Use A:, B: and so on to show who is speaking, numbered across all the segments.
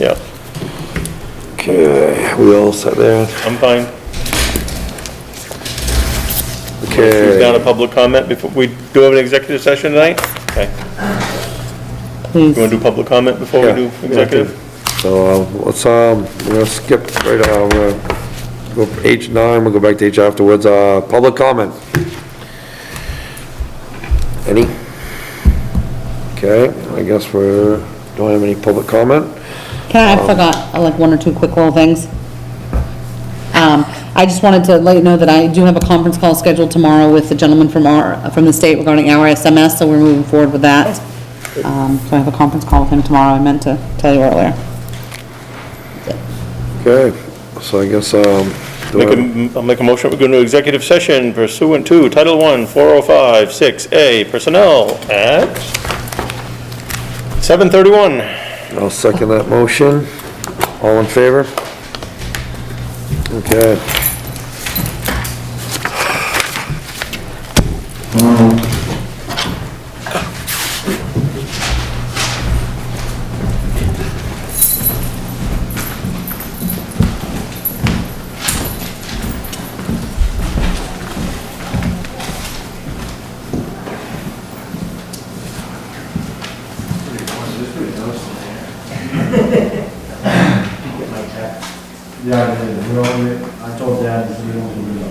A: Yeah,
B: Okay, we all set there?
A: I'm fine. Who's down
B: Okay.
A: to public comment before, we do have an executive session tonight? Okay. You
C: Please.
A: want to do public comment before we do
B: Yeah.
A: executive?
B: So um, let's, um, we're gonna skip right, uh, we're gonna go for H nine, we'll go back to H afterwards. Uh, public comment? Any? Okay, I guess we're, don't have any public comment?
C: Can I, I forgot, uh, like, one or two quick little things. Um, I just wanted to let you know that I do have a conference call scheduled tomorrow with the gentleman from our, from the state regarding our SMS, so we're moving forward with that. Um, so I have a conference call with him tomorrow, I meant to tell you earlier.
B: Okay, so I guess, um, do
A: Make a,
B: I-
A: m- I'll make a motion, we're going to executive session pursuant to Title oh I, 405, 6A, personnel at 7:31.
B: I'll second that motion. All in favor? Okay.
D: Yeah, I did, you know, I told Dad, you don't do it.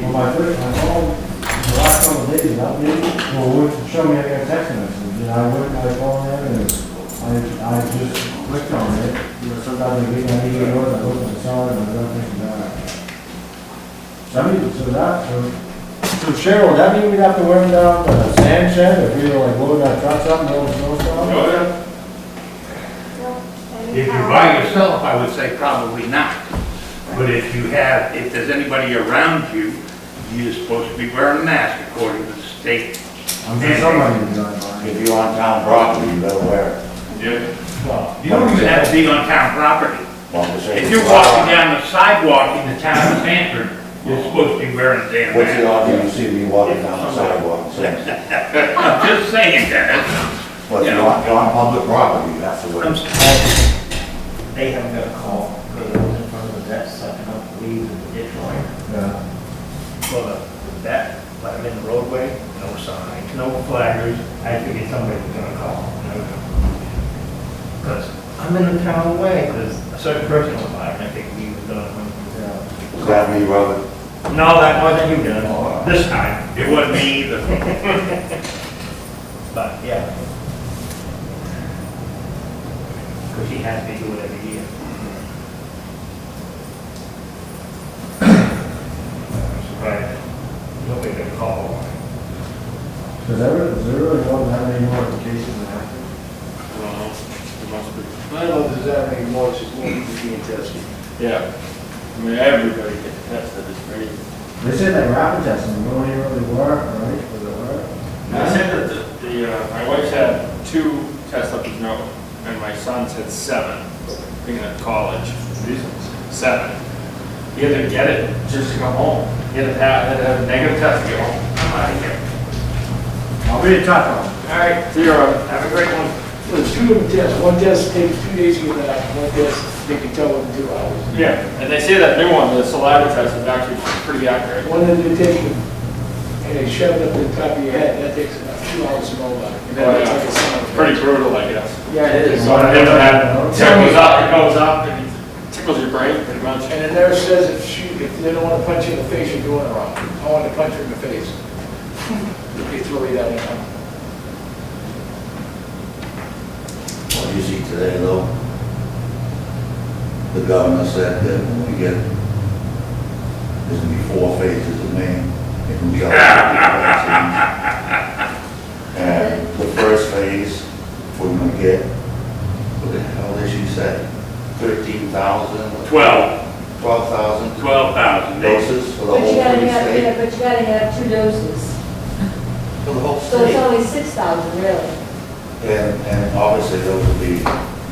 D: Well, my first, my phone, the last couple of days, not really, well, it showed me I got a text message, and I went, I called in, and I, I just clicked on it, you know, sometimes I get, I need to go, I look at the side, and I don't think about it. So I mean, so that, so so Cheryl, that mean we'd have to wear them down to the sand shed, if we were like loading our trucks up, and all the snowstorm?
E: If you're by yourself, I would say probably not. But if you have, if there's anybody around you, you're supposed to be wearing a mask according to the state.
D: I'm sure somebody would be like, "All right."
F: If you're on town property, you better wear
D: Well,
F: it.
E: You don't even have to be on town property. If you're walking down the sidewalk in the town of Sanford, you're supposed to be wearing a damn
F: What's the
E: mask.
F: odds you see me walking down the sidewalk? So,
E: I'm just saying, Dennis.
F: But you're on, you're on public property, that's the
G: I'm
F: way.
G: surprised they haven't got a call, because I was in front of the vet sucking up leaves in the ditch line. uh,
D: yeah.
G: Well, the vet, let him in the roadway, no sign, no flaggers, I figured somebody was gonna call. Because I'm in the town way, because a certain person was by, and I think we was done.
F: Is that me, Robert?
G: No, that wasn't you, Dylan, this time,
E: It wasn't me either.
G: but, yeah. Because he has to do it every year.
E: I'm surprised. Nobody got called.
D: Does that, does it really don't have any more applications than active?
H: I don't know if there's that many more, it's just more people being tested.
I: Yeah, I mean, everybody gets tested, it's crazy.
D: They said that rapid testing, no one really work, right? Was it work?
I: I said that the- the, uh, my wife's had two tests up his nose, and my son's had seven, being at college, seven. He had to get it just to go home, he had to have, had to have a negative test to get home. I'm out of here.
D: I'll be a tough one.
I: All right, see you around, have a great one.
H: So there's two different tests, one test takes two days to get back, one test they can tell in two hours.
I: Yeah, and they say that new one, the saliva test is actually pretty accurate.
H: One that they take and they shove it up the top of your head, that takes about two hours to go by. And
I: Oh,
H: then
I: yeah.
H: it's like a sound.
I: Pretty brutal, I guess.
H: Yeah, it is.
I: So I think that tickles up, it goes up, and it tickles your brain pretty much.
H: And the nurse says if she, if they don't want to punch you in the face, you're doing it wrong. I want to punch her in the face. They throw you down there.
F: What you see today, though, the governor said that when we get, there's gonna be four phases of Maine, it can be all. And the first phase, we're gonna get, what the hell did she say? Thirteen thousand?
E: Twelve,
F: Twelve thousand
E: twelve thousand. They-
F: doses uh, for the
J: But
F: whole
J: you gotta
F: free
J: have, yeah,
F: state?
J: but you gotta have two doses,
F: For the whole
J: so it's
F: state?
J: only six thousand, really.
F: And, and obviously those will be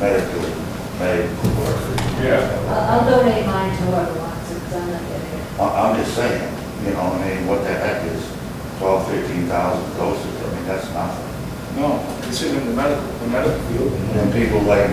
F: medical, medical workers.
I: Yeah.
J: I'll I'll donate mine to whoever wants it, 'cause I'm not getting it.
F: I- I'm just saying, you know, I mean, what the heck is 12, 13,000 doses? I mean, that's nothing.
H: No, considering the medical, the medical field.
F: And people like